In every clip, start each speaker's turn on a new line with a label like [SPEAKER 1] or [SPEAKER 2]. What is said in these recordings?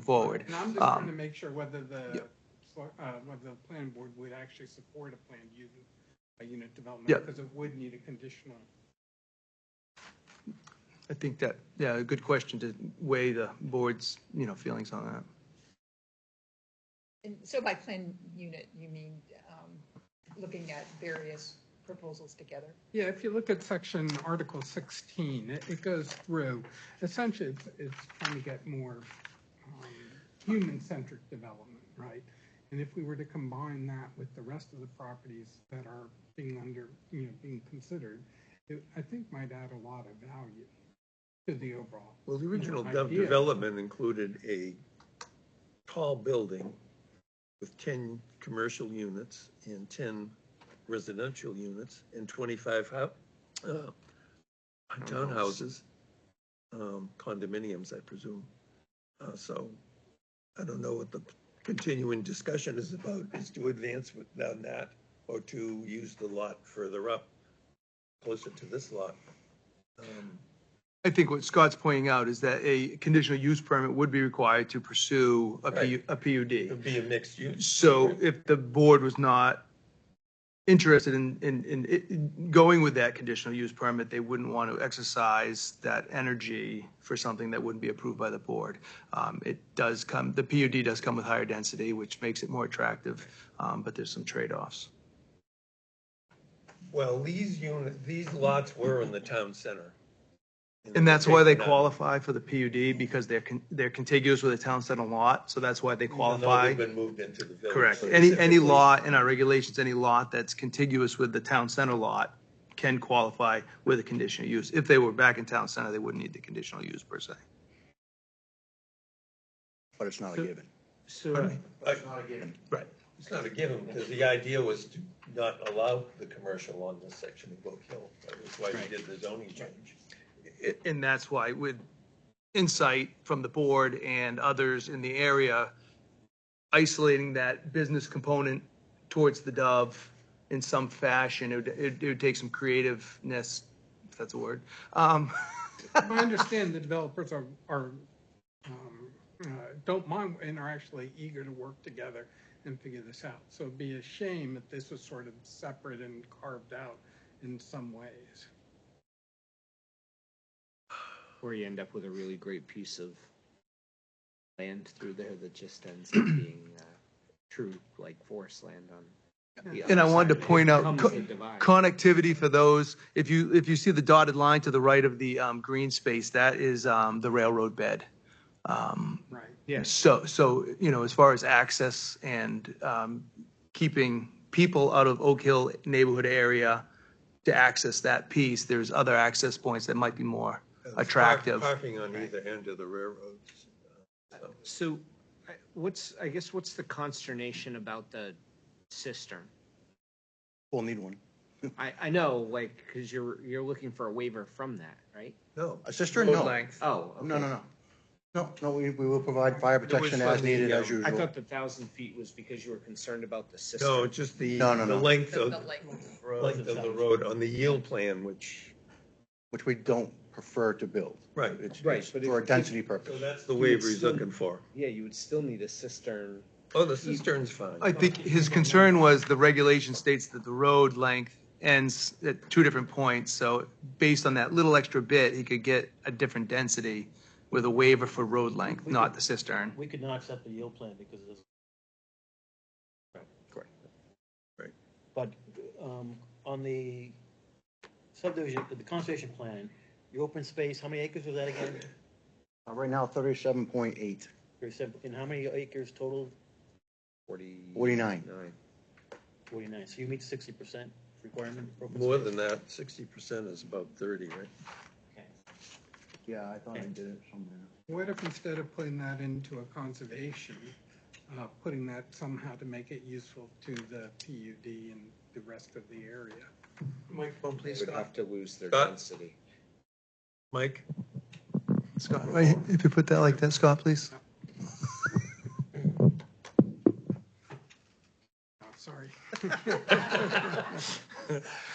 [SPEAKER 1] forward.
[SPEAKER 2] And I'm just
[SPEAKER 1] Um,
[SPEAKER 2] trying to make sure whether the, uh, whether the planning board would actually support a planned unit, a unit development.
[SPEAKER 1] Yeah.
[SPEAKER 2] Because it would need a conditional.
[SPEAKER 1] I think that, yeah, a good question to weigh the board's, you know, feelings on that.
[SPEAKER 3] And so by plan unit, you mean um, looking at various proposals together?
[SPEAKER 2] Yeah, if you look at section Article 16, it, it goes through, essentially, it's, it's trying to get more um, human-centric development, right? And if we were to combine that with the rest of the properties that are being under, you know, being considered, it, I think might add a lot of value to the overall.
[SPEAKER 4] Well, the original
[SPEAKER 2] Yeah,
[SPEAKER 4] dev-
[SPEAKER 2] idea.
[SPEAKER 4] development included a tall building with ten commercial units and ten residential units and twenty-five hou- uh, townhouses, um, condominiums, I presume. Uh, so I don't know what the continuing discussion is about, is to advance with on that or to use the lot further up, closer to this lot. Um,
[SPEAKER 1] I think what Scott's pointing out is that a conditional use permit would be required to pursue a P-
[SPEAKER 4] Right.
[SPEAKER 1] a PUD.
[SPEAKER 4] It'd be a mixed use.
[SPEAKER 1] So if the board was not interested in, in, in it- going with that conditional use permit, they wouldn't want to exercise that energy for something that wouldn't be approved by the board. Um, It does come, the PUD does come with higher density, which makes it more attractive, um, but there's some trade-offs.
[SPEAKER 4] Well, these unit, these lots were in the town center.
[SPEAKER 1] And that's why they
[SPEAKER 4] were taken out,
[SPEAKER 1] qualify for the PUD, because they're, con- they're contiguous with a town center lot, so that's why they
[SPEAKER 4] even though
[SPEAKER 1] qualify.
[SPEAKER 4] They've been moved into the village.
[SPEAKER 1] Correct.
[SPEAKER 4] So
[SPEAKER 1] Any, any
[SPEAKER 4] typically-
[SPEAKER 1] lot in our regulations, any lot that's contiguous with the town center lot can qualify with a conditional use. If they were back in town center, they wouldn't need the conditional use per se.
[SPEAKER 5] but it's not a given.
[SPEAKER 6] So,
[SPEAKER 4] Like,
[SPEAKER 1] Right.
[SPEAKER 4] It's not a given, because the idea was to not allow the commercial on this section of Oak Hill. That was why we did the zoning change.
[SPEAKER 1] And that's why with insight from the board and others in the area, isolating that business component towards the Dove in some fashion, it would, it would take some creativeness, if that's a word, um,
[SPEAKER 2] I understand the developers are, are, um, uh, don't mind and are actually eager to work together and figure this out. So it'd be a shame if this was sort of separate and carved out in some ways.
[SPEAKER 6] where you end up with a really great piece of land through there that just ends up being uh, true like forest land on. the
[SPEAKER 1] And I
[SPEAKER 6] other
[SPEAKER 1] wanted
[SPEAKER 6] side.
[SPEAKER 1] to
[SPEAKER 6] It
[SPEAKER 1] point out
[SPEAKER 6] becomes
[SPEAKER 1] co-
[SPEAKER 6] a divide.
[SPEAKER 1] connectivity for those. If you, if you see the dotted line to the right of the um, green space, that is um, the railroad bed.
[SPEAKER 2] Right.
[SPEAKER 1] So, so, you know, as far as access and um, keeping people out of Oak Hill neighborhood area to access that piece, there's other access points that might be more attractive.
[SPEAKER 4] Parking on either end of the railroads.
[SPEAKER 6] So, I- what's I guess what's the consternation about the cistern?
[SPEAKER 5] We'll need one.
[SPEAKER 6] I I know like because you're you're looking for a waiver from that, right?
[SPEAKER 4] No,
[SPEAKER 5] A cistern,
[SPEAKER 1] Boat
[SPEAKER 5] no. No,
[SPEAKER 1] length.
[SPEAKER 6] Oh, okay.
[SPEAKER 5] no, no. No, no, we, we will provide fire protection
[SPEAKER 4] from
[SPEAKER 5] as
[SPEAKER 4] the,
[SPEAKER 5] needed, as
[SPEAKER 4] um,
[SPEAKER 6] I
[SPEAKER 5] usual.
[SPEAKER 6] thought the thousand feet was because you were concerned about the cistern.
[SPEAKER 4] no, just the,
[SPEAKER 5] No, no,
[SPEAKER 4] the
[SPEAKER 5] no.
[SPEAKER 4] length
[SPEAKER 3] The
[SPEAKER 4] of,
[SPEAKER 3] the length.
[SPEAKER 4] length of the road on the yield plan, which,
[SPEAKER 5] Which we don't prefer to build.
[SPEAKER 4] Right.
[SPEAKER 5] It's,
[SPEAKER 6] Right,
[SPEAKER 5] it's
[SPEAKER 6] but
[SPEAKER 5] for
[SPEAKER 6] if-
[SPEAKER 5] a density
[SPEAKER 4] so
[SPEAKER 5] purpose.
[SPEAKER 4] that's the waiver he's
[SPEAKER 6] still-
[SPEAKER 4] looking for.
[SPEAKER 6] Yeah, you would still need a cistern.
[SPEAKER 4] Oh, the cistern's fine.
[SPEAKER 1] I think his concern was the regulation states that the road length ends at two different points. So based on that little extra bit, he could get a different density with a waiver for road length, not the cistern.
[SPEAKER 7] We could not accept the yield plan because of this.
[SPEAKER 5] Correct.
[SPEAKER 4] Right.
[SPEAKER 7] But um, on the subdivision, the conservation plan, your open space, how many acres was that again?
[SPEAKER 5] Uh, Right now, thirty-seven point eight.
[SPEAKER 7] Your sev- And how many acres total?
[SPEAKER 6] 40,
[SPEAKER 5] 49.
[SPEAKER 7] Forty-nine. So you meet sixty percent requirement? for open
[SPEAKER 4] More
[SPEAKER 7] space?
[SPEAKER 4] than that, sixty percent is about thirty, right?
[SPEAKER 7] Okay.
[SPEAKER 5] Yeah, I thought I did it somewhere.
[SPEAKER 2] What if instead of putting that into a conservation, uh, putting that somehow to make it useful to the PUD and the rest of the area?
[SPEAKER 4] Microphone,
[SPEAKER 6] They
[SPEAKER 4] please,
[SPEAKER 6] would
[SPEAKER 4] Scott.
[SPEAKER 6] have to lose their
[SPEAKER 4] Scott?
[SPEAKER 6] density.
[SPEAKER 4] Mike?
[SPEAKER 1] Scott, right, if you put that like that, Scott, please.
[SPEAKER 2] Oh, sorry.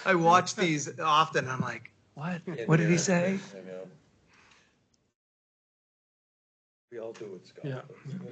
[SPEAKER 1] I watch these often. I'm
[SPEAKER 4] uh,
[SPEAKER 1] like, what? What did he say?
[SPEAKER 4] I know.
[SPEAKER 8] We all do it, Scott.
[SPEAKER 4] Yeah.